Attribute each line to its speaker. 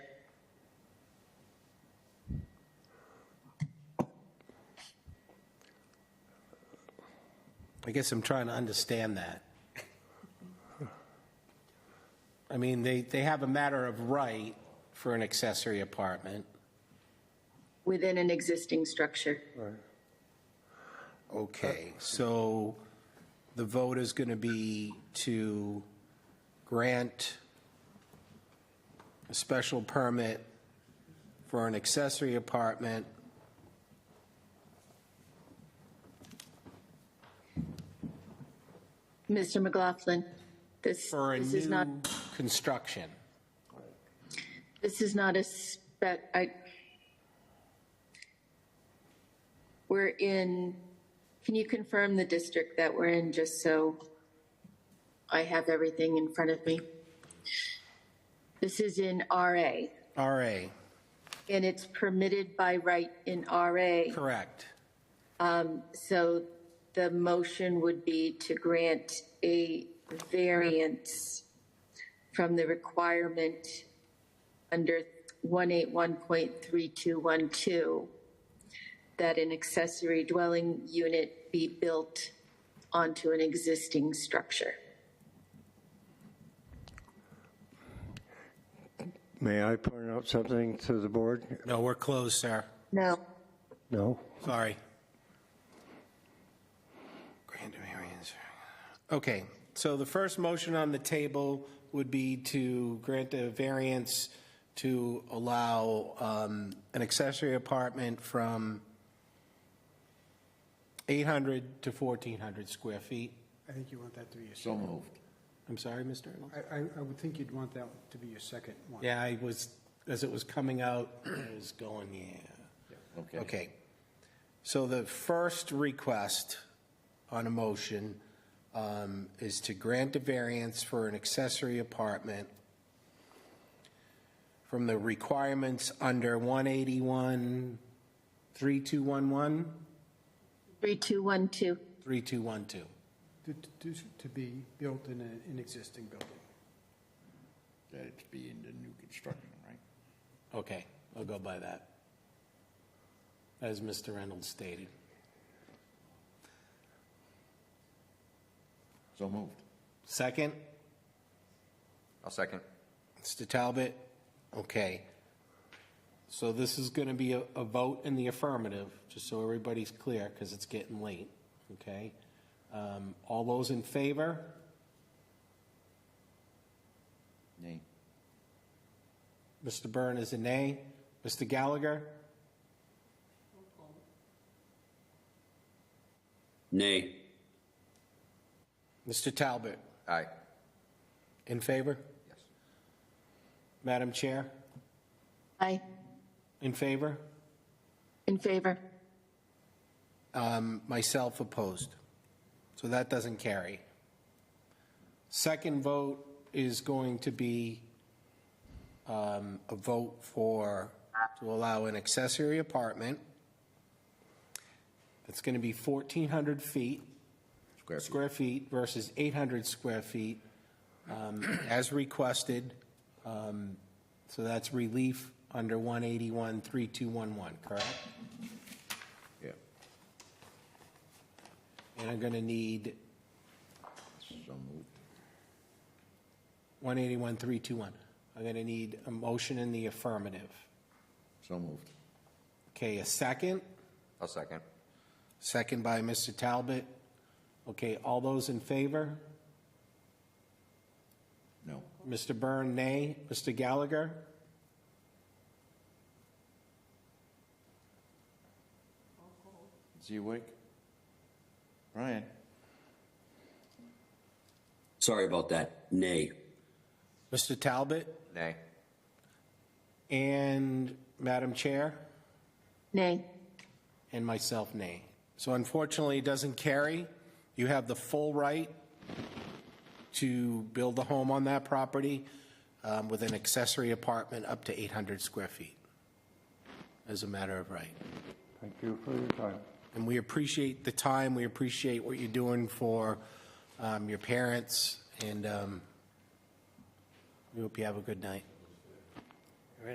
Speaker 1: I guess I'm trying to understand that. I mean, they, they have a matter of right for an accessory apartment.
Speaker 2: within an existing structure.
Speaker 1: Okay, so the vote is going to be to grant a special permit for an accessory apartment
Speaker 2: Mr. McLaughlin, this,
Speaker 1: for a
Speaker 2: this is not,
Speaker 1: new construction.
Speaker 2: this is not a spec, I, we're in, can you confirm the district that we're in, just so I have everything in front of me? This is in RA,
Speaker 1: RA,
Speaker 2: and it's permitted by right in RA.
Speaker 1: correct.
Speaker 2: So the motion would be to grant a variance from the requirement under 181.3212 that an accessory dwelling unit be built onto an existing structure.
Speaker 3: May I point out something to the board?
Speaker 1: No, we're closed, sir.
Speaker 2: No.
Speaker 3: No?
Speaker 1: Sorry. Grand variance. Okay, so the first motion on the table would be to grant a variance to allow um, an accessory apartment from 800 to 1,400 square feet.
Speaker 4: I think you want that to be your,
Speaker 5: So moved.
Speaker 1: I'm sorry, Mr. Erdl?
Speaker 4: I, I, I would think you'd want that to be your second one.
Speaker 1: Yeah, I was, as it was coming out, I was going, yeah.
Speaker 5: Okay.
Speaker 1: Okay. So the first request on a motion um, is to grant a variance for an accessory apartment from the requirements under 181, 3211,
Speaker 2: 3212.
Speaker 1: 3212.
Speaker 4: To, to, to be built in a- an existing building.
Speaker 5: That it's be in the new construction, right?
Speaker 1: Okay, I'll go by that. As Mr. Reynolds stated.
Speaker 5: So moved.
Speaker 1: Second?
Speaker 6: I'll second.
Speaker 1: Mr. Talbot? Okay. So this is going to be a, a vote in the affirmative, just so everybody's clear, because it's getting late, okay? Um, All those in favor?
Speaker 5: Nay.
Speaker 1: Mr. Byrne is a nay. Mr. Gallagher?
Speaker 6: Nay.
Speaker 1: Mr. Talbot,
Speaker 6: Aye.
Speaker 1: in favor?
Speaker 6: Yes.
Speaker 1: Madam Chair,
Speaker 2: Aye.
Speaker 1: in favor?
Speaker 2: In favor.
Speaker 1: Um, Myself opposed. So that doesn't carry. Second vote is going to be um, a vote for, to allow an accessory apartment. It's going to be 1,400 feet,
Speaker 5: Square feet.
Speaker 1: square feet versus 800 square feet um, as requested. Um, So that's relief under 181-3211, correct?
Speaker 5: Yeah.
Speaker 1: And I'm going to need
Speaker 5: So moved.
Speaker 1: 181-321. I'm going to need a motion in the affirmative.
Speaker 5: So moved.
Speaker 1: Okay, a second?
Speaker 6: I'll second.
Speaker 1: Second by Mr. Talbot. Okay, all those in favor?
Speaker 5: No.
Speaker 1: Mr. Byrne, nay. Mr. Gallagher?
Speaker 5: Is he awake? Brian?
Speaker 7: Sorry about that. Nay.
Speaker 1: Mr. Talbot?
Speaker 6: Nay.
Speaker 1: And Madam Chair?
Speaker 2: Nay.
Speaker 1: And myself, nay. So unfortunately, it doesn't carry. You have the full right to build a home on that property um, with an accessory apartment up to 800 square feet as a matter of right.
Speaker 3: Thank you for your time.
Speaker 1: And we appreciate the time, we appreciate what you're doing for um, your parents, and um, we hope you have a good night.